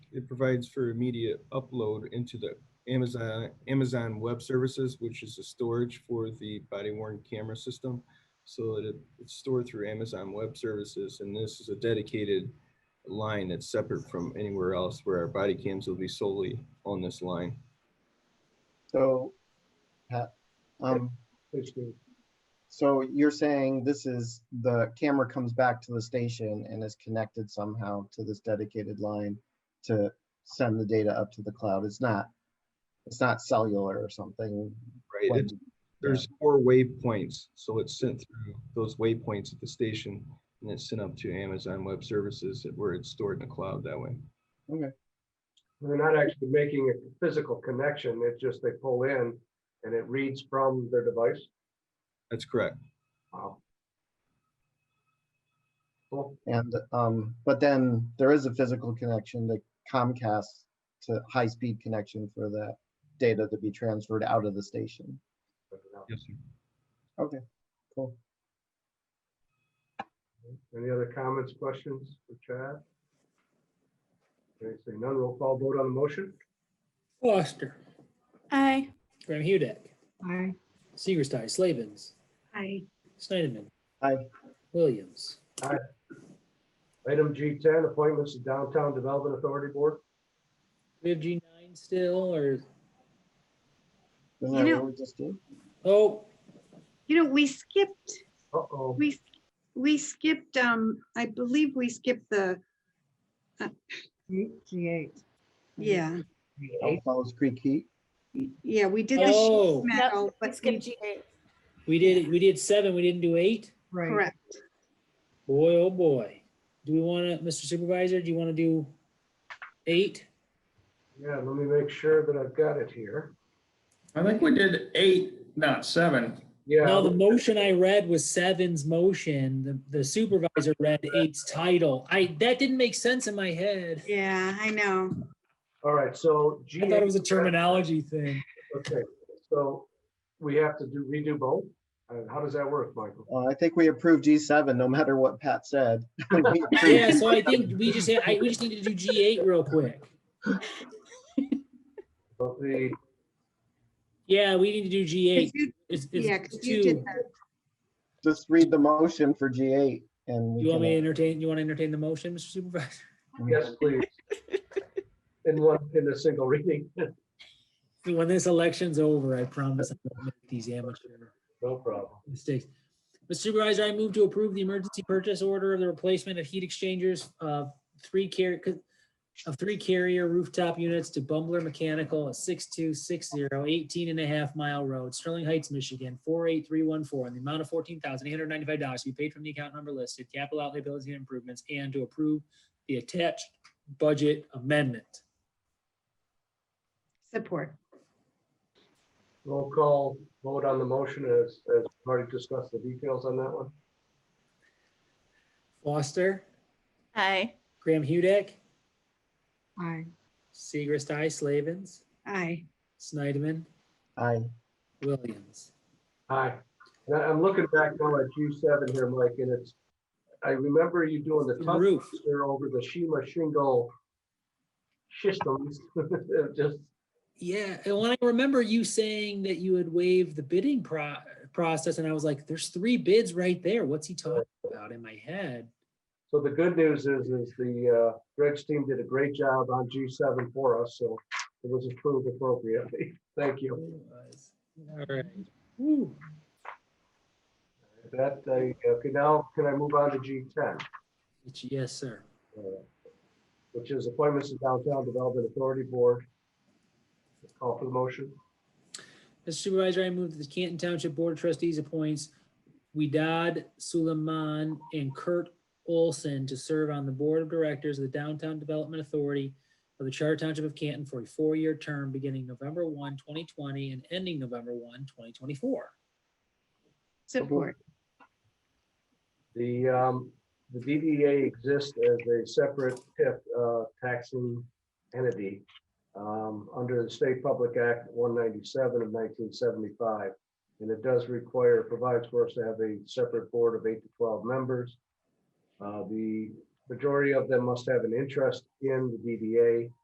it provides for immediate upload into the Amazon, Amazon Web Services, which is the storage for the body worn camera system. So that it- it's stored through Amazon Web Services, and this is a dedicated line that's separate from anywhere else where our body cams will be solely on this line. So, Pat, um, so you're saying this is, the camera comes back to the station and is connected somehow to this dedicated line to send the data up to the cloud. It's not, it's not cellular or something. Right, like- it's, there's four waypoints, so it's sent through those waypoints at the station and it's sent up to Amazon Web Services where it's stored in the cloud that way. They're not actually making a physical connection. It's just they pull in and it reads from their device. That's correct. Wow. Cool. And, um, but then there is a physical connection to Comcast to high-speed connection for that data to be transferred out of the station. Yes, sir. Okay, cool. Any other comments, questions for Chad? Okay, say none, roll call vote on the motion. Foster, Aye. Graham Hudek, Aye. Seagerstai, Slavens, Aye. Snyderman. Aye. Williams. Item G10, appointments to Downtown Development Authority Board. We have G9 still or, Isn't You that know- what we just did? oh, You know, we skipped, Uh-oh, we, we skipped, um, I believe we skipped the, uh, G8. yeah, Oh, Fellows Creek Heat? yeah, we did the oh, sheet metal, but Skip we, G8. we did, we did seven, we didn't do eight? Right. correct. Boy, oh boy. Do we want to, Mr. Supervisor, do you want to do eight? yeah, let me make sure that I've got it here. I think we did eight, not seven. Yeah. No, the motion I read was Seven's motion. The- The supervisor read eight's title. I, that didn't make sense in my head. Yeah, I know. All right, so. I thought it was a G8 terminology thing. Okay, so we have to do redo both? Uh, How does that work, Michael? Well, Uh, I think we approved G7, no matter what Pat said. We approved- Yeah, so I think we just, I, we just need to do G8 real quick. Well, The, Yeah, we need to do 'Cause G8. you- It's, Yeah, it's 'cause you two. did the, Just read the motion for G8 and. we You want me to can- entertain, you want to entertain the motion, Mr. Supervisor? yes, please. In one, in a single reading, When this election's over, I promise I won't make these amateur no problem. mistakes. Mr. Supervisor, I move to approve the emergency purchase order of the replacement of heat exchangers of three car, of three carrier rooftop units to Bumbler Mechanical at 6260 18 and a half mile road, Sterling Heights, Michigan, 48314, in the amount of $14,895 to be paid from the account number listed, capital outlay bills and improvements, and to approve the attached budget amendment. support. Roll call, vote on the motion as, as we've already discussed the details on that one. Foster, Aye. Graham Hudek, Aye. Seagrist, I, Slavens, Aye. Snyderman, Aye. Williams. Aye. Now, I'm looking back now at G seven here, Mike, and it's, I remember you doing the The tongue roof. twister over the Shima shingle systems, just, Yeah, and when I remember you saying that you had waived the bidding pro- process, and I was like, "There's three bids right there. What's he talking about?" In my head, so the good news is, is the, uh, Greg's team did a great job on G seven for us, so it was approved appropriately. Thank you. It was. All right. Woo. That, uh, okay, now can I move on to G ten? Which- Yes, sir. uh, which is appointments to Downtown Development Authority Board. Call for the motion. Mr. Supervisor, I move that the Canton Township Board of Trustees appoints Widad Suleiman and Kurt Olson to serve on the Board of Directors of the Downtown Development Authority of the Charter Township of Canton for a four-year term beginning November 1, 2020 and ending November 1, 2024. Support. The, um, the DDA exists as a separate TIF, uh, taxing entity, um, under the State Public Act one ninety-seven of nineteen seventy-five. And it does require, provides for us to have a separate board of eight to twelve members. Uh, the majority of them must have an interest in the DDA.